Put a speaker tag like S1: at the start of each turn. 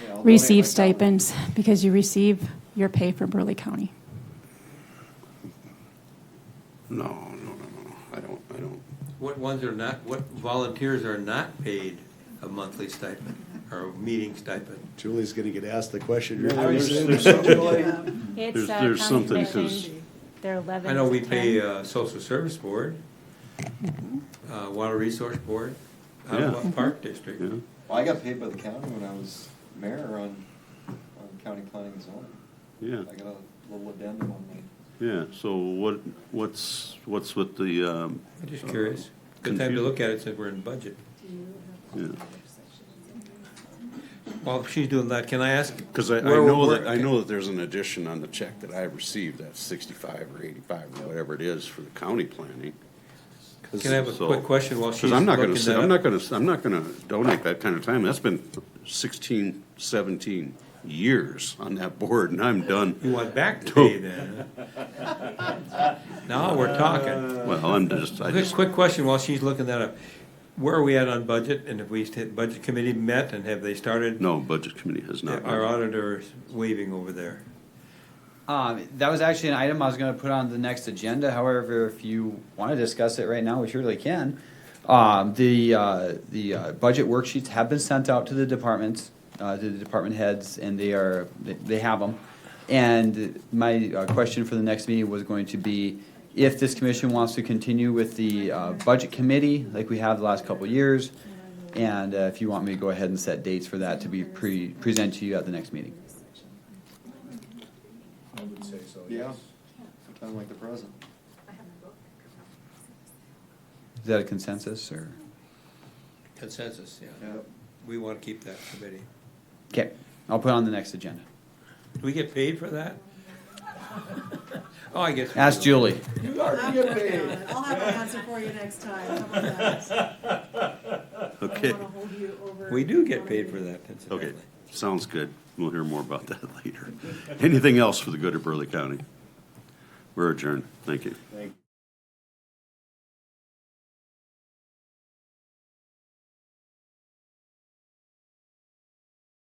S1: you know, donate
S2: receive
S1: my time.
S2: stipends because you receive your pay from Burley County.
S3: No, no, no, no, I don't, I don't.
S4: What ones are not, what volunteers are not paid a monthly stipend or a meeting stipend?
S5: Julie's gonna get asked the question.
S1: I
S5: You're
S1: was-
S5: losing.
S1: there's something like-
S3: There's-
S6: It's, uh,
S3: there's
S6: county
S3: something
S6: commissions.
S3: says-
S6: They're eleven
S4: I know we
S6: to
S4: pay
S6: 10.
S4: uh, Social Service Board, uh, Water Resource Board,
S3: Mm-hmm. Yeah. Mm-hmm.
S4: Ottawa Park District.
S3: Yeah.
S1: Well, I got paid by the county when I was mayor on, on county planning and zoning.
S3: Yeah.
S1: I got a little addendum on me.
S3: Yeah, so what, what's, what's with the, um,
S4: I'm just curious. Good time to look at it since we're in budget.
S3: yeah.
S4: Well, if she's doing that, can I ask?
S3: Cause I, I
S4: where-
S3: know
S4: where-
S3: that, I know that there's an addition on the check that I received, that's sixty-five or eighty-five, or whatever it is for the county planning.
S4: Can I have a
S3: So-
S4: quick question while she's
S3: Cause I'm not gonna,
S4: looking
S3: sit-
S4: that
S3: I'm
S4: up?
S3: not gonna, I'm not gonna donate that kind of time, that's been 16, 17 years on that board, and I'm
S4: You
S3: done.
S4: want back to pay then? Now we're talking.
S3: Well, I'm just, I
S4: Quick,
S3: just,
S4: quick question while she's looking that up. Where are we at on budget and have we, st- budget committee met and have they started?
S3: no, budget committee has not.
S4: Our auditor is waving over there.
S7: Um, that was actually an item I was gonna put on the next agenda, however, if you wanna discuss it right now, we surely can. Um, the, uh, the, uh, budget worksheets have been sent out to the departments, uh, to the department heads, and they are, they- they have them. And my, uh, question for the next meeting was going to be, if this commission wants to continue with the, uh, budget committee, like we have the last couple of years, and, uh, if you want me to go ahead and set dates for that to be pre, presented to you at the next meeting.
S8: I would say so,
S1: Yeah,
S8: yes.
S1: sometime like the present.
S7: Is that a consensus, or?
S4: Consensus, yeah.
S1: Yep.
S4: We want to keep that committee.
S7: Okay, I'll put it on the next agenda.
S4: Do we get paid for that? Oh, I guess. we
S7: Ask
S4: do.
S7: Julie.
S6: I'm working on it. I'll have an answer for you next time. How about that? I don't
S3: Okay,
S6: wanna hold you over-
S4: We do get paid for that, incidentally.
S3: okay, sounds good, we'll hear more about that later. Anything else for the good of Burley County? We're adjourned, thank you.
S1: Thank